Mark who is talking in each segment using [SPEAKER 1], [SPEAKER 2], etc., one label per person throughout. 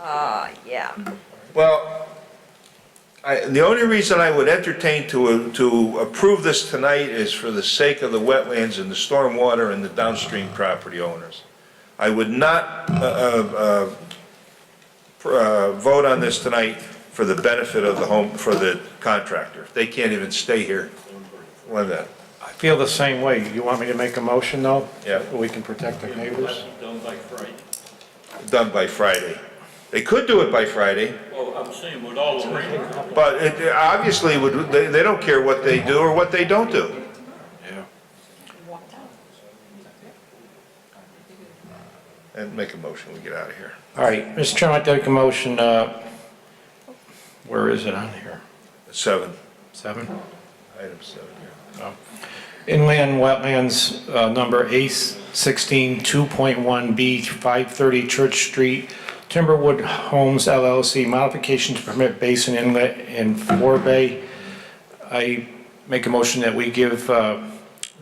[SPEAKER 1] Uh, yeah.
[SPEAKER 2] Well, I, the only reason I would entertain to, to approve this tonight is for the sake of the wetlands and the stormwater and the downstream property owners. I would not, uh, uh, uh, pr- uh, vote on this tonight for the benefit of the home, for the contractor. They can't even stay here. When that,
[SPEAKER 3] I feel the same way. You want me to make a motion, though?
[SPEAKER 2] Yeah.
[SPEAKER 3] We can protect our neighbors?
[SPEAKER 4] Done by Friday.
[SPEAKER 2] done by Friday. They could do it by Friday,
[SPEAKER 4] Well, I'm saying with all the rain.
[SPEAKER 2] but it obviously would, they, they don't care what they do or what they don't do. And make a motion, we get out of here.
[SPEAKER 3] All right, Mr. Chairman, I take a motion, uh, where is it on here?
[SPEAKER 2] Seven,
[SPEAKER 3] Seven?
[SPEAKER 2] item seven.
[SPEAKER 3] Inland Wetlands, uh, number A16, 2.1B, 530 Church Street, Timberwood Homes LLC, modification to permit basin inlet and forebay. I make a motion that we give uh,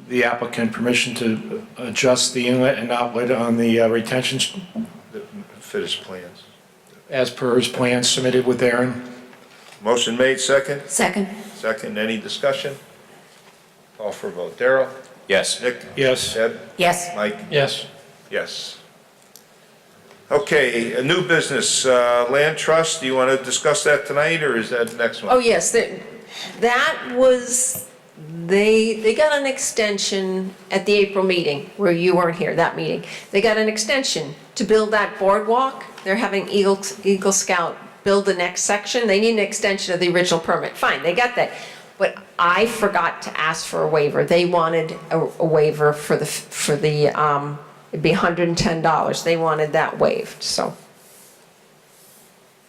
[SPEAKER 3] the applicant permission to adjust the inlet and outlet on the uh, retention s-
[SPEAKER 2] The Fit his plans.
[SPEAKER 3] as per his plan submitted with Aaron.
[SPEAKER 2] Motion made, second.
[SPEAKER 5] Second.
[SPEAKER 2] Second, any discussion? Call for a vote. Darrell?
[SPEAKER 6] Yes.
[SPEAKER 2] Nick?
[SPEAKER 3] Yes?
[SPEAKER 2] Deb?
[SPEAKER 5] Yes.
[SPEAKER 2] Mike?
[SPEAKER 3] Yes.
[SPEAKER 2] Yes. Okay, a new business, uh, land trust, do you want to discuss that tonight, or is that next
[SPEAKER 1] Oh,
[SPEAKER 2] one?
[SPEAKER 1] yes, that, that was, they, they got an extension at the April meeting, where you weren't here, that meeting. They got an extension to build that boardwalk. They're having Eagle, Eagle Scout build the next section. They need an extension of the original permit. Fine, they got that. But I forgot to ask for a waiver. They wanted a a waiver for the, for the, um, it'd be $110. They wanted that waived, so.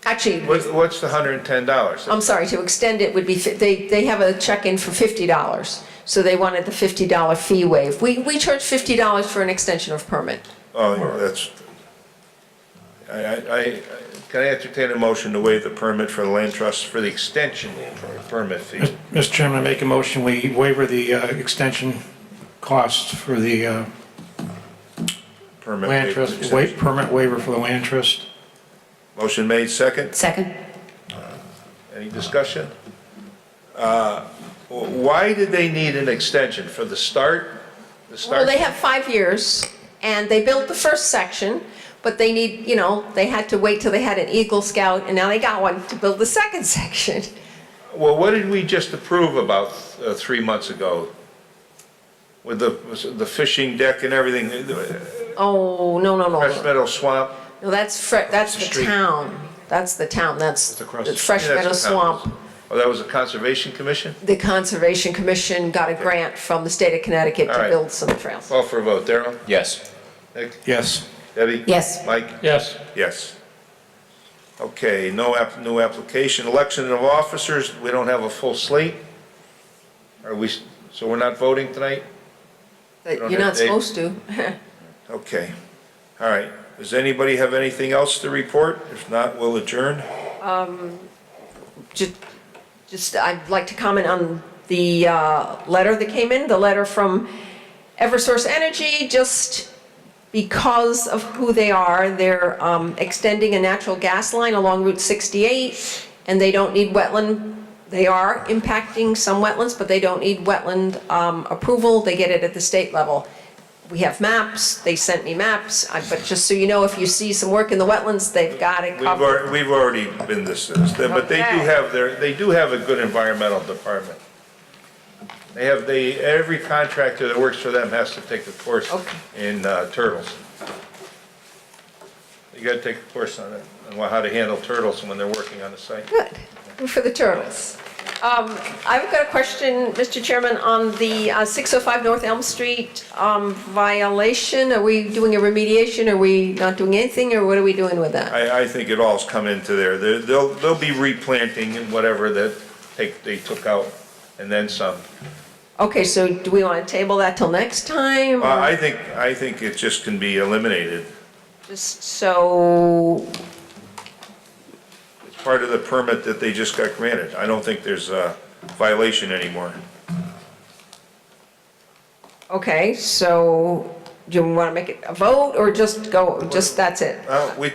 [SPEAKER 1] Actually, it was
[SPEAKER 2] What- What's the hundred and ten dollars?
[SPEAKER 1] I'm sorry, to extend it would be, fi- they, they have a check-in for $50, so they wanted the $50 fee waived. We, we charge $50 for an extension of permit.
[SPEAKER 2] Oh, that's, I, I, I- can I entertain a motion to waive the permit for the land trust for the extension permit fee?
[SPEAKER 3] Mr. Chairman, I make a motion, we waiver the uh, extension costs for the uh,
[SPEAKER 2] Permit
[SPEAKER 3] Land
[SPEAKER 2] fee for
[SPEAKER 3] trust,
[SPEAKER 2] extension.
[SPEAKER 3] wait, permit waiver for the land trust?
[SPEAKER 2] Motion made, second.
[SPEAKER 5] Second.
[SPEAKER 2] Any discussion? Uh, w- Why did they need an extension? For the start? The
[SPEAKER 1] Well,
[SPEAKER 2] start?
[SPEAKER 1] they have five years, and they built the first section, but they need, you know, they had to wait till they had an Eagle Scout, and now they got one to build the second section.
[SPEAKER 2] Well, what did we just approve about uh, three months ago? With the, the fishing deck and everything, the-
[SPEAKER 1] Oh, no, no, no,
[SPEAKER 2] Fresh
[SPEAKER 1] no,
[SPEAKER 2] Meadow Swamp?
[SPEAKER 1] No, that's, Fre- that's the
[SPEAKER 3] street.
[SPEAKER 1] town, that's the town, that's
[SPEAKER 3] across the-
[SPEAKER 1] Fresh
[SPEAKER 2] Yeah, that's
[SPEAKER 1] Meadow
[SPEAKER 2] what
[SPEAKER 1] Swamp.
[SPEAKER 2] happens. Oh, that was a conservation commission?
[SPEAKER 1] The Conservation Commission got a grant from the state of Connecticut
[SPEAKER 2] All
[SPEAKER 1] to
[SPEAKER 2] right.
[SPEAKER 1] build some trails.
[SPEAKER 2] Call for a vote. Darrell?
[SPEAKER 6] Yes.
[SPEAKER 2] Nick?
[SPEAKER 3] Yes.
[SPEAKER 2] Debbie?
[SPEAKER 5] Yes.
[SPEAKER 2] Mike?
[SPEAKER 3] Yes.
[SPEAKER 2] Yes. Okay, no app, new application, election of officers, we don't have a full slate? Are we, s- so we're not voting tonight?
[SPEAKER 1] That
[SPEAKER 2] Don't
[SPEAKER 1] you're
[SPEAKER 2] have
[SPEAKER 1] not
[SPEAKER 2] date.
[SPEAKER 1] supposed to.
[SPEAKER 2] Okay, all right. Does anybody have anything else to report? If not, we'll adjourn.
[SPEAKER 1] Ju- Just, I'd like to comment on the uh, letter that came in, the letter from Eversource Energy, just because of who they are, they're um, extending a natural gas line along Route 68, and they don't need wetland, they are impacting some wetlands, but they don't need wetland um, approval, they get it at the state level. We have maps, they sent me maps, I- but just so you know, if you see some work in the wetlands, they've got it
[SPEAKER 2] We've,
[SPEAKER 1] covered.
[SPEAKER 2] al- we've already been this, this, but they do
[SPEAKER 1] Um, Okay.
[SPEAKER 2] have their, they do have a good environmental department. They have, they, every contractor that works for them has to take a course
[SPEAKER 1] Okay.
[SPEAKER 2] in uh, turtles. You gotta take a course on it, on how to handle turtles when they're working on the site.
[SPEAKER 1] Good, for the turtles. Um, I've got a question, Mr. Chairman, on the uh, 605 North Elm Street um, violation. Are we doing a remediation? Are we not doing anything, or what are we doing with that?
[SPEAKER 2] I, I think it all's come into there. They're- They'll, they'll be replanting and whatever that take, they took out, and then some.
[SPEAKER 1] Okay, so do we want to table that till next time? or
[SPEAKER 2] Well, I think, I think it just can be eliminated.
[SPEAKER 1] Just so,
[SPEAKER 2] It's part of the permit that they just got granted. I don't think there's a violation anymore.
[SPEAKER 1] okay, so do you want to make it a vote, or just go, just that's it?
[SPEAKER 2] Uh, we